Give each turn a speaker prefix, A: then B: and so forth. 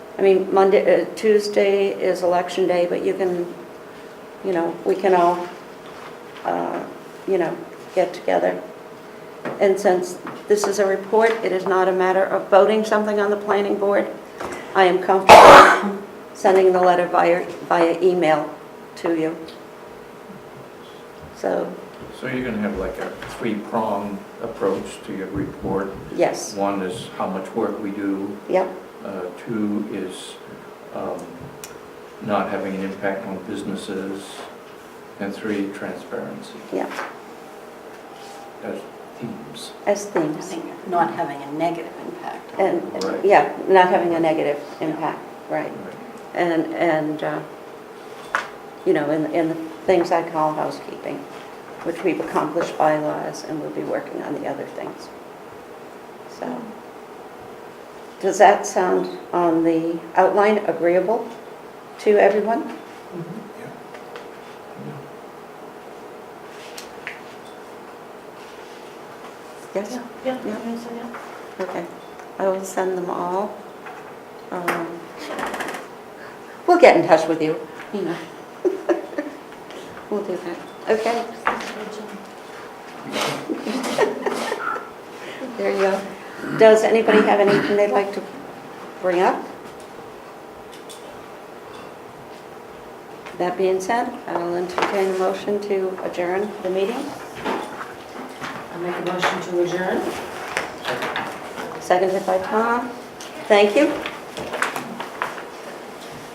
A: I mean, Monday, uh, Tuesday is election day, but you can, you know, we can all, uh, you know, get together. And since this is a report, it is not a matter of voting something on the planning board. I am comfortable sending the letter via, via email to you. So,
B: So you're gonna have like a three-pronged approach to your report.
A: yes,
B: One is how much work we do,
A: yep,
B: uh, two is um, not having an impact on businesses, and three, transparency
A: yep,
B: as themes.
A: as
C: I
A: things.
C: think not having a negative impact.
A: And,
B: Right.
A: yeah, not having a negative impact, right.
B: Right.
A: And, and, uh, you know, in, in the things I call housekeeping, which we've accomplished bylaws and we'll be working on the other things. So, does that sound on the outline agreeable to everyone? Yes?
D: Yeah,
A: Yeah.
D: yeah, so, yeah.
A: Okay, I will send them all. Um, We'll get in touch with you, you know. We'll do that. Okay, there you go. Does anybody have anything they'd like to bring up? That being said, I'll entertain a motion to adjourn the meeting.
D: I make a motion to adjourn.
A: Seconded by Tom. Thank you.